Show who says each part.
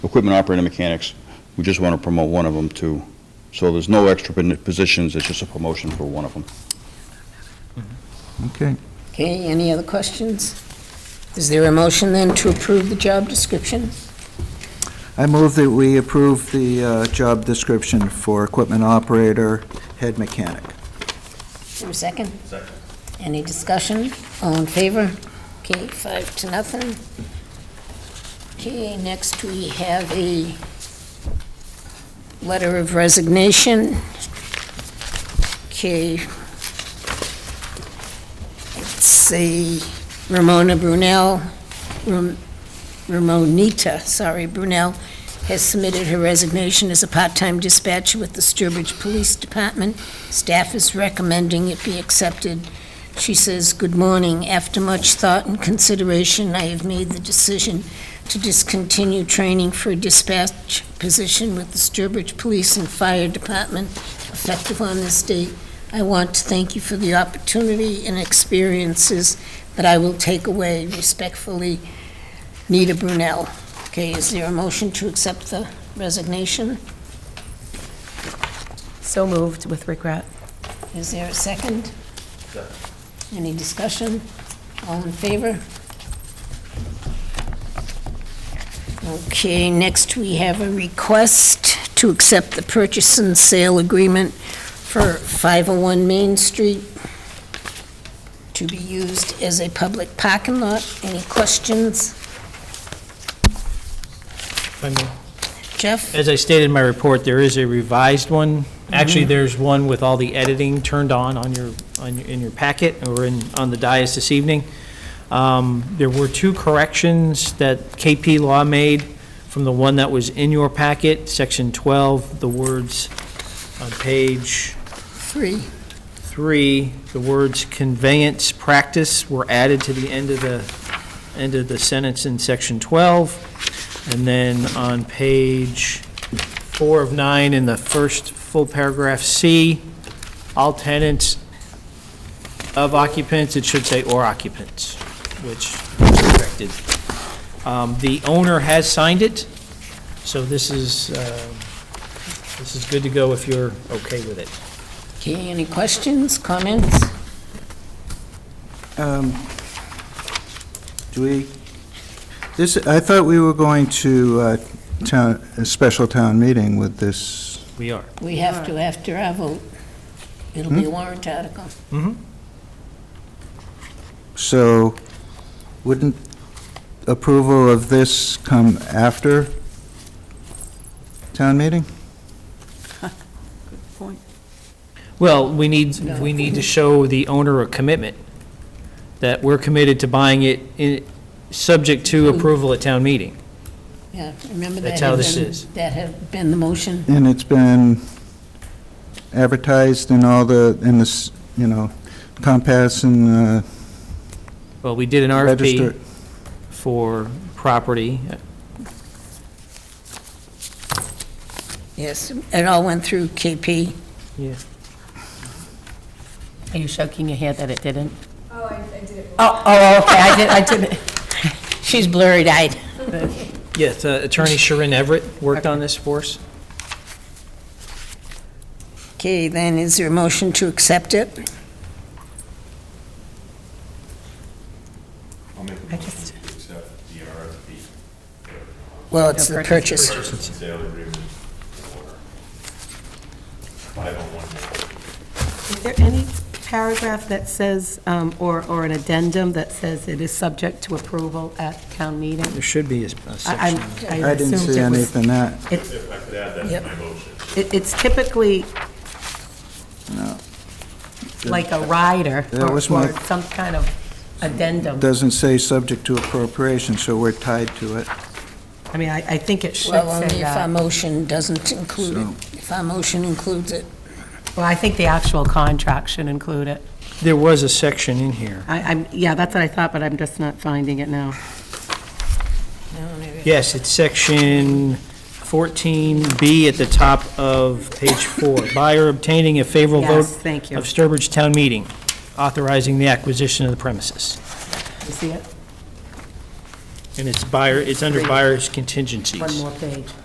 Speaker 1: equipment operator mechanics. We just want to promote one of them to, so there's no extra pon- positions, it's just a promotion for one of them.
Speaker 2: Okay.
Speaker 3: Okay, any other questions? Is there a motion then to approve the job description?
Speaker 2: I move that we approve the uh, job description for equipment operator, head mechanic.
Speaker 3: Is there a second? Second. Any discussion? All in favor? Okay, five to nothing. Okay, next we have a letter of resignation. Okay. It's a Ramona Brunel, Ram- Ramonita, sorry, Brunel, has submitted her resignation as a part-time dispatcher with the Sturbridge Police Department. Staff is recommending it be accepted. She says, "Good morning. After much thought and consideration, I have made the decision to discontinue training for a dispatch position with the Sturbridge Police and Fire Department effective on this date. I want to thank you for the opportunity and experiences that I will take away. Respectfully, Nita Brunel." Okay, is there a motion to accept the resignation?
Speaker 4: So moved with regret.
Speaker 3: Is there a second? Any discussion? All in favor? Okay, next we have a request to accept the purchase and sale agreement for 501 Main Street to be used as a public parking lot. Any questions? Jeff?
Speaker 5: As I stated in my report, there is a revised one. Actually, there's one with all the editing turned on on your, on your- in your packet or in, on the dais this evening. Um, There were two corrections that KP Law made from the one that was in your packet, section 12, the words on page
Speaker 3: Three.
Speaker 5: three, the words conveyance practice were added to the end of the, end of the sentence in section 12. And then on page four of nine, in the first full paragraph C, all tenants of occupants, it should say or occupants, which is corrected. Um, The owner has signed it, so this is, uh, this is good to go if you're okay with it.
Speaker 3: Okay, any questions, comments?
Speaker 2: Um, Do we, this, I thought we were going to uh, town, a special town meeting with this.
Speaker 5: We are.
Speaker 3: We have to after our vote. It'll be a warrant article.
Speaker 2: So wouldn't approval of this come after town meeting?
Speaker 5: Well, we need, we need to show the owner a commitment, that we're committed to buying it, in- subject to
Speaker 6: Hmm.
Speaker 5: approval at town meeting.
Speaker 3: Yeah, remember that.
Speaker 5: That's
Speaker 3: had
Speaker 5: how this
Speaker 3: been-
Speaker 5: is.
Speaker 3: That had been the motion.
Speaker 2: And it's been advertised in all the, in this, you know, Compass and uh,
Speaker 5: Well, we did an
Speaker 2: Register.
Speaker 5: RFP for property.
Speaker 3: Yes, it all went through KP.
Speaker 5: Yeah.
Speaker 4: Are you shaking your head that it didn't?
Speaker 7: Oh, I, I did it.
Speaker 4: Oh, oh, okay, I did, I didn't.
Speaker 3: She's blurry-eyed.
Speaker 5: Yes, uh, Attorney Sharon Everett worked on this for us.
Speaker 3: Okay, then is there a motion to accept it?
Speaker 8: I'll make a
Speaker 4: I
Speaker 8: motion
Speaker 4: just-
Speaker 8: to accept the RFP
Speaker 3: Well, it's the
Speaker 4: The
Speaker 3: purchase.
Speaker 8: purchase and sale agreement for 501.
Speaker 6: Is there any paragraph that says, um, or, or an addendum that says it is subject to approval at town meeting?
Speaker 5: There should be a a
Speaker 6: I
Speaker 5: section.
Speaker 6: I'm- I
Speaker 2: I didn't
Speaker 6: assumed
Speaker 2: see
Speaker 6: it was-
Speaker 2: anything that.
Speaker 6: it-
Speaker 8: If I could add that
Speaker 3: Yep.
Speaker 8: to my motion.
Speaker 6: it- It's typically like a rider
Speaker 2: That
Speaker 6: or
Speaker 2: was my-
Speaker 6: or some kind of addendum.
Speaker 2: Doesn't say subject to appropriation, so we're tied to it.
Speaker 6: I mean, I, I think it should
Speaker 3: Well, only
Speaker 6: say
Speaker 3: if our
Speaker 6: that.
Speaker 3: motion doesn't include it. If our motion includes it.
Speaker 6: Well, I think the actual contract should include it.
Speaker 5: There was a section in here.
Speaker 6: I, I'm, yeah, that's what I thought, but I'm just not finding it now.
Speaker 5: Yes, it's section 14B at the top of page four. Buyer obtaining a favorable vote
Speaker 6: Yes, thank you.
Speaker 5: of Sturbridge Town Meeting, authorizing the acquisition of the premises.
Speaker 6: You see it?
Speaker 5: It
Speaker 6: And it's buyer, it's under buyer's contingencies.
Speaker 8: One more page.